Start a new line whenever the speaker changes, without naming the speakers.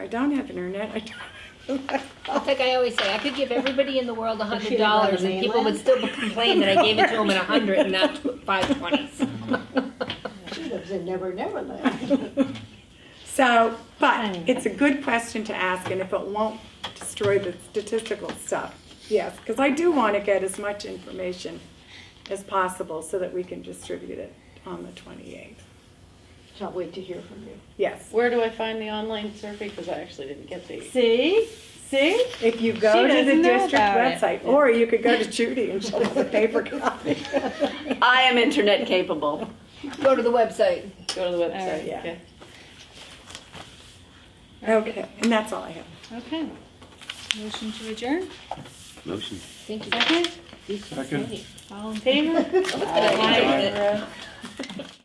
I don't have internet. I don't.
It's like I always say, I could give everybody in the world a
she
hundred
didn't run the
dollars and people would
mainland?
still complain that I gave it to them at a hundred and not five twenties.
She lives in Never Never Land.
So, but it's a good question to ask, and if it won't destroy the statistical stuff, yes, because I do want to get as much information as possible so that we can distribute it on the 28th.
So I'll wait to hear from you.
Yes.
Where do I find the online survey? Because I actually didn't get the.
See, see,
If you
She
go to the
doesn't know
district
about it.
website, or you could go to Judy and she'll have a paper copy.
I am internet capable.
Go to the website.
Go to the
All right,
website.
yeah.
okay.
Okay, and that's all I have.
okay. Motion to adjourn,
Motion.
Thank you.
second,
Second.
all in favor?
Aye.
Aye.